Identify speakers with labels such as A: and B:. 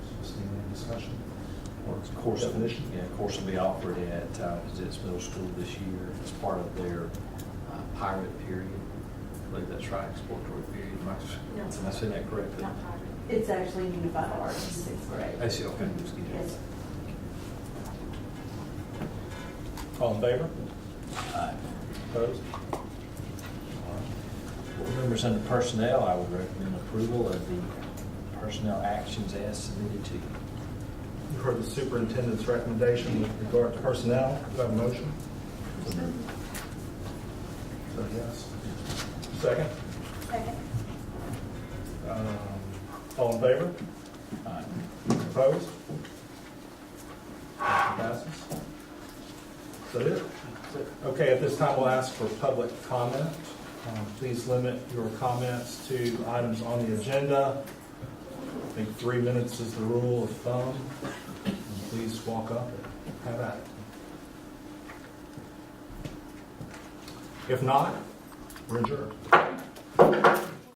A: session, or course finish.
B: Yeah, course will be offered at uh, Gazette's Middle School this year as part of their uh, pilot period. I believe that's right, exploratory period. Am I-
C: No.
B: Am I saying that correctly?
C: Not hard.
D: It's actually unified arts in sixth grade.
B: I see, okay. just get it.
D: Yes.
A: All in favor?
B: Aye.
A: Opposed?
B: Board members under personnel, I would recommend approval of the personnel actions as submitted to you.
A: You've heard the superintendent's recommendation with regard to personnel. Do I have a motion? So yes. Second?
C: Second.
A: Um, All in favor?
B: Aye.
A: Opposed? Motion passes. Is that it? Okay, at this time, we'll ask for public comment. Um, Please limit your comments to items on the agenda. I think three minutes is the rule of thumb. And Please walk up and have at it. If not, we're adjourned.